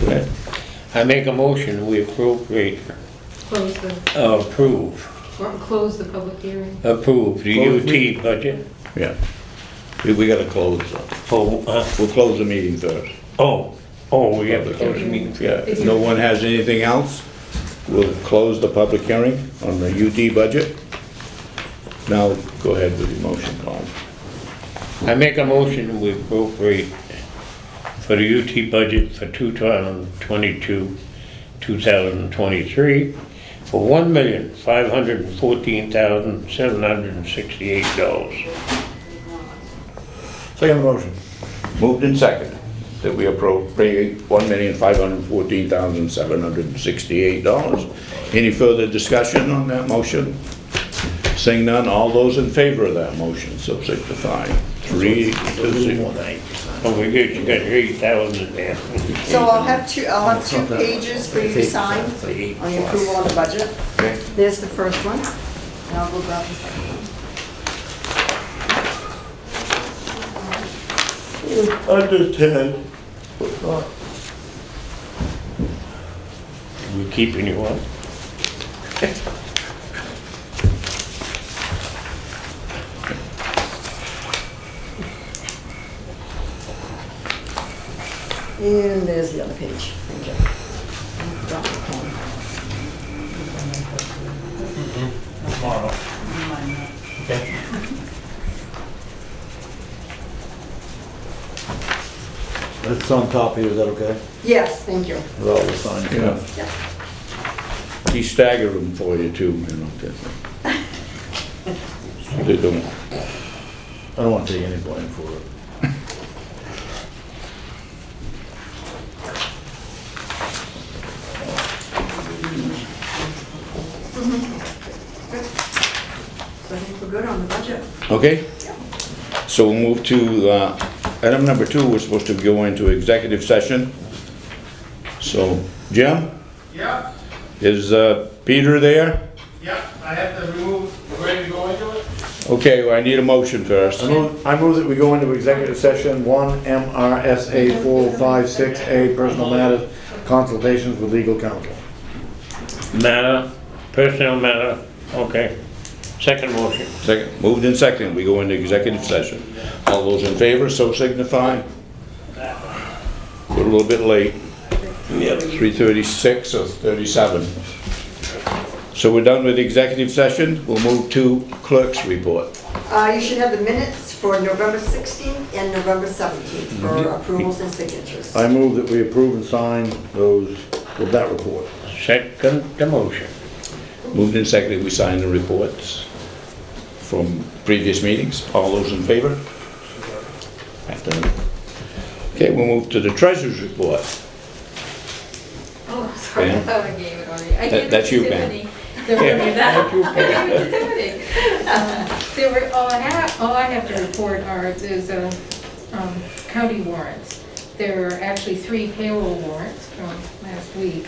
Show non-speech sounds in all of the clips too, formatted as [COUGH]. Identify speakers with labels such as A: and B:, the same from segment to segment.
A: Good. I make a motion, we appropriate,
B: Close the,
A: uh, approve,
B: or close the public hearing.
A: approve
C: Close
A: the UT budget.
C: Yeah. We, we gotta close, uh,
A: Oh, uh,
C: we'll close the meeting first.
A: oh, oh, we have to close the
B: hearing.
A: meeting.
C: Yeah, if no one has anything else, we'll close the public hearing on the UD budget. Now, go ahead with your motion, Colin.
A: I make a motion, we appropriate for the UT budget for 2022, 2023, for $1,514,768.
C: Second motion. Moved and second, that we appropriate one million, five hundred and fourteen thousand, seven hundred and sixty-eight dollars. Any further discussion on that motion? Seeing none, all those in favor of that motion, so signify. Three to zero.
A: Oh, we good, you got 8,000 there.
D: So I'll have two, I'll have two pages for you to sign on the approval on the budget. There's the first one, and I'll go grab the second one.
A: Understand. We keeping you up?
D: And there's the other page, thank you. I've got the pen.
E: It's on top here, is that okay?
D: Yes, thank you.
E: With all the signs?
C: Yeah.
D: Yeah.
C: He staggered them for you too, you know. that- They don't,
E: I don't want to take any blame for it.
D: So I think we're good on the budget.
C: okay? So we'll move to, uh, item number two, we're supposed to go into executive session. So, Jim,
F: Yep,
C: is uh, Peter there?
F: yep, I have to remove, we're ready to go into it?
C: Okay, well, I need a motion first.
E: I move, I move that we go into executive session, one MRSA four five six A, personal matters, consultations with legal counsel.
A: Matter, personnel matter, okay. Second motion.
C: Second, moved in second, we go into executive session. All those in favor, so signify. We're a little bit late. Yep. Three thirty-six or thirty-seven. So we're done with executive session, we'll move to clerk's report.
D: Uh, you should have the minutes for November 16th and November 17th for approvals and signatures.
E: I move that we approve and sign those, with that report.
A: Second the motion.
C: Moved in second, we sign the reports from previous meetings. All those in favor? Afternoon. Okay, we'll move to the treasurer's report.
B: Oh, [LAUGHS] sorry, I
C: Pam?
B: thought I gave it already. I
C: That-
B: gave it
C: that's
B: to
C: you, Pam.
B: Tiffany. Don't give me that. [LAUGHS] I gave it to Tiffany. Uh, There were, all I have, all I have to report are, there's uh, um, county warrants. There are actually three payroll warrants from last week.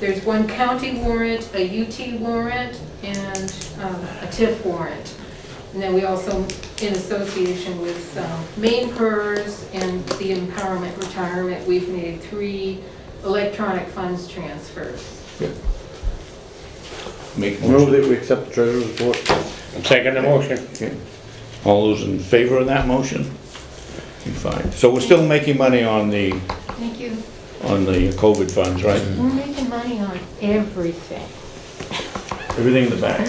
B: There's one county warrant, a UT warrant, and um, a TIF warrant. And then we also, in association with um, Maine PERS and the Empowerment Retirement, we've made three electronic funds transfers.
C: Make
E: Move
C: motion.
E: that we accept the treasurer's report.
A: Second the motion.
C: Okay. All those in favor of that motion? Okay, Fine. So we're still making money on the,
B: Thank you.
C: on the COVID funds, right?
B: We're making money on everything.
E: Everything in the back.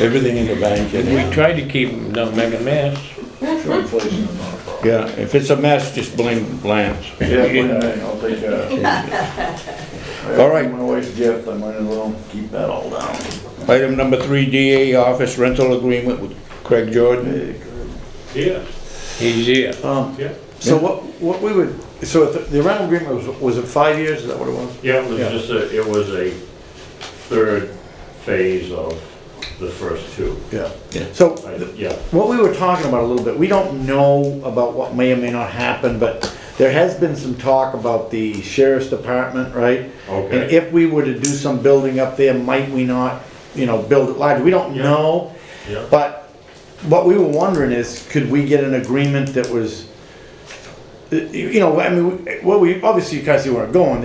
C: Everything in the bank.
A: We
C: and-
A: tried to keep them, don't make a mess.
C: Yeah, if it's a mess, just blame Lance.
E: Yeah, wait a minute, I'll take care of it.
C: All right.
E: My wife's gift, I might as well keep that all down.
C: Item number three, DA office rental agreement with Craig Jordan.
F: Yeah.
A: He's here.
E: Um,
F: Yeah.
E: so what, what we would, so if the the rental agreement was, was it five years, is that what it was?
F: Yeah, it was
E: Yeah.
F: just a, it was a third phase of the first two.
C: Yeah.
E: Yeah. So,
F: I-
E: th-
F: Yeah,
E: what we were talking about a little bit, we don't know about what may or may not happen, but there has been some talk about the sheriff's department, right? And
F: okay,
E: if we were to do some building up there, might we not, you know, build it large? We don't
F: Yeah.
E: know.
F: yeah.
E: But what we were wondering is, could we get an agreement that was, you know, I mean, what we, obviously you guys see where I'm going,